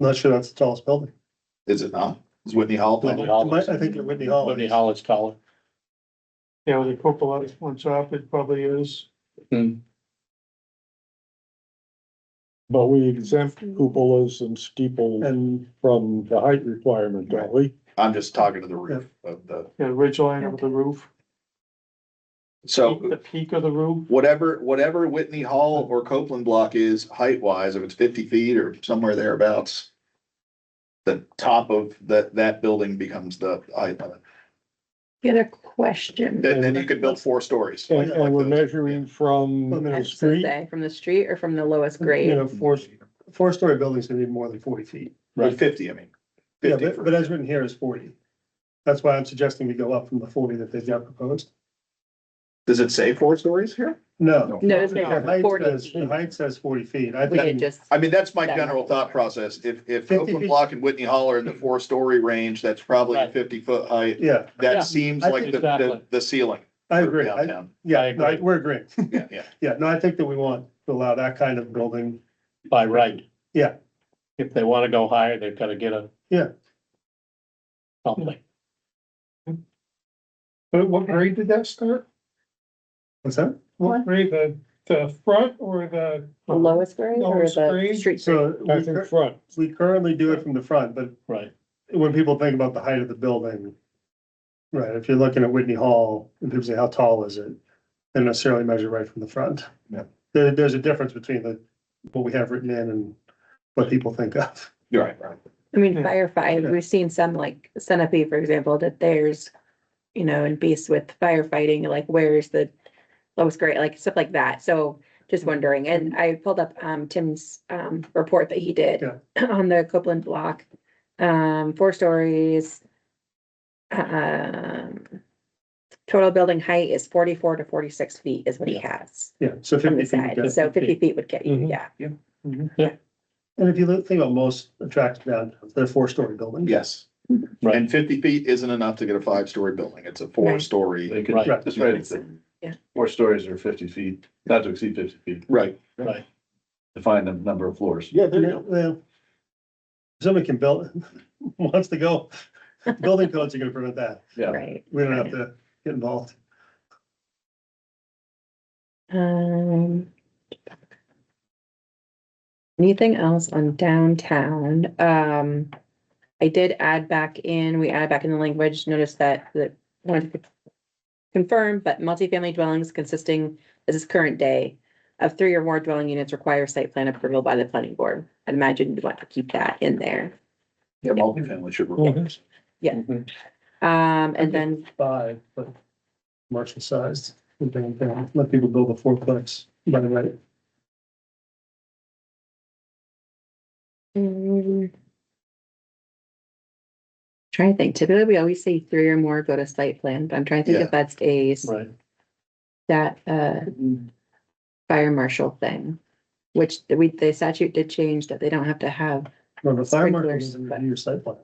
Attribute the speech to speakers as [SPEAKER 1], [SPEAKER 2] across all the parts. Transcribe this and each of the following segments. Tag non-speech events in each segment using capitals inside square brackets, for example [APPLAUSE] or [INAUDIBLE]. [SPEAKER 1] Not sure that's the tallest building.
[SPEAKER 2] Is it not? Is Whitney Hall?
[SPEAKER 1] Whitney
[SPEAKER 2] tall?
[SPEAKER 1] Hall. might- I think Whitney Hall is.
[SPEAKER 3] Whitney Hall is taller.
[SPEAKER 4] Yeah, with the cupola that's on top, it probably is.
[SPEAKER 3] Hmm.
[SPEAKER 5] But we exempt
[SPEAKER 6] Mm-hmm.
[SPEAKER 5] cupolas and steeples
[SPEAKER 1] And
[SPEAKER 5] from the height requirement, don't we?
[SPEAKER 2] I'm just talking to the roof of the,
[SPEAKER 4] Yeah, ridge line of the roof,
[SPEAKER 2] so
[SPEAKER 4] the peak of the roof.
[SPEAKER 2] whatever, whatever Whitney Hall or Copeland block is height wise, if it's fifty feet or somewhere thereabouts. The top of that, that building becomes the height limit.
[SPEAKER 6] Get a question.
[SPEAKER 2] Then, then you could build four stories.
[SPEAKER 5] And,
[SPEAKER 2] like- like
[SPEAKER 5] and we're
[SPEAKER 2] those.
[SPEAKER 5] measuring from
[SPEAKER 1] From the
[SPEAKER 5] the
[SPEAKER 6] That's the
[SPEAKER 5] street,
[SPEAKER 6] say, From the street or from the lowest
[SPEAKER 1] You
[SPEAKER 6] grade?
[SPEAKER 1] know, four, four-story buildings gonna need more than forty feet.
[SPEAKER 2] Like fifty, I mean.
[SPEAKER 1] Yeah,
[SPEAKER 2] 50
[SPEAKER 1] but,
[SPEAKER 2] for-
[SPEAKER 1] but as written here is forty. That's why I'm suggesting we go up from the forty that they've got proposed.
[SPEAKER 2] Does it say four stories here?
[SPEAKER 1] No.
[SPEAKER 6] No, it's
[SPEAKER 1] The
[SPEAKER 6] not
[SPEAKER 1] height
[SPEAKER 6] forty
[SPEAKER 1] says- The
[SPEAKER 6] feet.
[SPEAKER 1] height says forty feet. I
[SPEAKER 6] We could
[SPEAKER 1] think,
[SPEAKER 6] just,
[SPEAKER 2] I mean, that's my
[SPEAKER 6] That
[SPEAKER 2] general
[SPEAKER 6] much.
[SPEAKER 2] thought process. If, if
[SPEAKER 1] 50
[SPEAKER 2] Copeland
[SPEAKER 1] feet.
[SPEAKER 2] Block and Whitney Hall are in the four story range, that's probably a
[SPEAKER 3] Right.
[SPEAKER 2] fifty foot height.
[SPEAKER 1] yeah,
[SPEAKER 3] Yeah,
[SPEAKER 2] That seems
[SPEAKER 1] I
[SPEAKER 2] like
[SPEAKER 3] think-
[SPEAKER 2] the, the,
[SPEAKER 3] Exactly.
[SPEAKER 2] the ceiling.
[SPEAKER 1] I
[SPEAKER 2] for
[SPEAKER 1] agree. I,
[SPEAKER 2] downtown.
[SPEAKER 1] yeah,
[SPEAKER 3] I
[SPEAKER 1] no, I-
[SPEAKER 3] agree.
[SPEAKER 1] we're agreeing.
[SPEAKER 2] Yeah, yeah.
[SPEAKER 1] [LAUGHS] Yeah, no, I think that we want to allow that kind of building.
[SPEAKER 3] By right.
[SPEAKER 1] Yeah.
[SPEAKER 3] If they wanna go higher, they've gotta get a.
[SPEAKER 1] Yeah.
[SPEAKER 3] Something,
[SPEAKER 4] But what grade did that start?
[SPEAKER 1] What's that?
[SPEAKER 4] What grade, the, the front or the?
[SPEAKER 6] the lowest grade or
[SPEAKER 4] Lowest
[SPEAKER 6] the
[SPEAKER 4] grade?
[SPEAKER 6] street? grade?
[SPEAKER 1] So
[SPEAKER 5] I
[SPEAKER 1] we
[SPEAKER 5] think
[SPEAKER 1] cur-
[SPEAKER 5] front.
[SPEAKER 1] we currently do it from the front, but
[SPEAKER 3] right,
[SPEAKER 1] when people think about the height of the building. Right, if you're looking at Whitney Hall, and people say, how tall is it? They don't necessarily measure right from the front.
[SPEAKER 2] Yeah.
[SPEAKER 1] There, there's a difference between the, what we have written in and what people think of. [LAUGHS]
[SPEAKER 2] You're right, right.
[SPEAKER 6] I mean,
[SPEAKER 4] Yeah.
[SPEAKER 6] firefight, we've seen some like Centipede, for example, that there's, you know, and Beast with firefighting, like where's the lowest grade, like stuff like that. So just wondering, and I pulled up um Tim's um report that he did [CLEARS THROAT] on the Copeland block. Um, four stories. Um, total building height is forty-four to forty-six feet is what he has
[SPEAKER 1] Yeah, so
[SPEAKER 6] from
[SPEAKER 1] fifty
[SPEAKER 6] the
[SPEAKER 1] feet. would
[SPEAKER 6] side.
[SPEAKER 1] get-
[SPEAKER 6] So
[SPEAKER 3] 50
[SPEAKER 6] fifty feet would get you,
[SPEAKER 3] Mhm.
[SPEAKER 6] yeah.
[SPEAKER 1] And if you look- think about most attractive downtowns, they're four-story buildings.
[SPEAKER 2] Yes.
[SPEAKER 3] Right.
[SPEAKER 2] And fifty feet isn't enough to get a five story building. It's a four story.
[SPEAKER 7] They could,
[SPEAKER 3] Right.
[SPEAKER 7] that's right, it's like
[SPEAKER 6] Yeah.
[SPEAKER 7] four stories or fifty feet, not to exceed fifty feet,
[SPEAKER 2] Right.
[SPEAKER 3] right.
[SPEAKER 7] define the number of floors.
[SPEAKER 2] Yeah,
[SPEAKER 1] Yeah, well, Somebody can build, [LAUGHS] wants to go, [LAUGHS] building codes are gonna prevent that.
[SPEAKER 7] Yeah,
[SPEAKER 6] Right.
[SPEAKER 1] We don't have to get involved.
[SPEAKER 6] Um. Anything else on downtown? Um, I did add back in, we added back in the language, notice that, that wanted to confirm, but multifamily dwellings consisting, this is current day, of three or more dwelling units require site plan approval by the planning board. I'd imagine you'd want to keep that in there.
[SPEAKER 2] Yeah, multifamily should require.
[SPEAKER 6] Um, and then
[SPEAKER 1] five, but commercial sized. and bring it down. Let people build a fourplex, by the way.
[SPEAKER 6] Mm. Trying to think, typically we always say three or more go to site plan, but I'm trying to think
[SPEAKER 2] Yeah.
[SPEAKER 6] if that's a, s-
[SPEAKER 3] Right.
[SPEAKER 6] that, uh, fire marshal thing. Which the- we, the statute did change that they don't have to have,
[SPEAKER 1] Remember, fire marshal
[SPEAKER 6] Sprinklers,
[SPEAKER 1] doesn't
[SPEAKER 6] but-
[SPEAKER 1] review your site plan.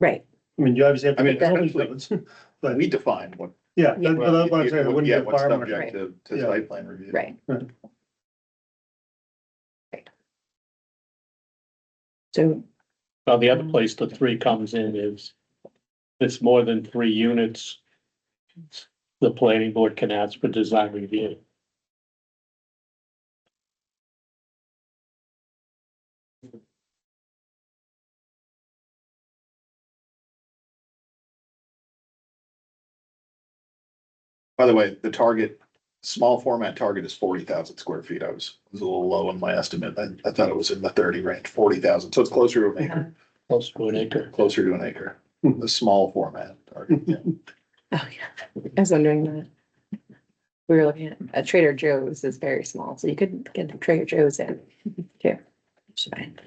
[SPEAKER 6] right,
[SPEAKER 1] I mean, you obviously have. to
[SPEAKER 2] I mean,
[SPEAKER 1] get building
[SPEAKER 2] essentially-
[SPEAKER 1] codes,
[SPEAKER 2] But
[SPEAKER 1] But,
[SPEAKER 2] we define what.
[SPEAKER 1] [LAUGHS] yeah, that-
[SPEAKER 6] Yeah.
[SPEAKER 1] but that's what I'm saying, it wouldn't be
[SPEAKER 2] Yeah,
[SPEAKER 1] a
[SPEAKER 2] what's
[SPEAKER 1] fire marshal.
[SPEAKER 2] subject to, to
[SPEAKER 1] Yeah.
[SPEAKER 2] site plan review.
[SPEAKER 6] right.
[SPEAKER 1] Right.
[SPEAKER 6] Right. So,
[SPEAKER 3] Now, the other place the three comes in is, it's more than three units. The planning board can ask for design review.
[SPEAKER 2] By the way, the target, small format target is forty thousand square feet. I was, was a little low on my estimate. I, I thought it was in the thirty range, forty thousand. So it's closer to an acre,
[SPEAKER 3] Close to an acre.
[SPEAKER 2] closer to an acre, the small format. target, yeah.
[SPEAKER 6] oh yeah, I was wondering that. We were looking at, uh, Trader Joe's is very small, so you couldn't get the Trader Joe's in, [LAUGHS] too. It's fine.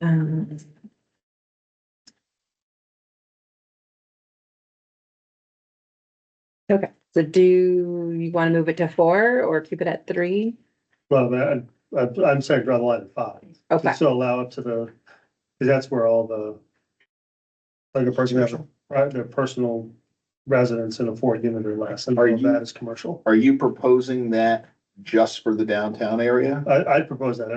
[SPEAKER 6] Um. Okay, so do you want to move it to four or keep it at three?
[SPEAKER 1] Well, that, I, I'm saying draw the line at five,
[SPEAKER 6] Okay,
[SPEAKER 1] just to allow up to the, because that's where all the. Like a person has, a- right, their personal residence in a four unit or less, and all
[SPEAKER 2] Are
[SPEAKER 1] of
[SPEAKER 2] you-
[SPEAKER 1] that is commercial.
[SPEAKER 2] Are you proposing that just for the downtown area?
[SPEAKER 1] I, I'd propose that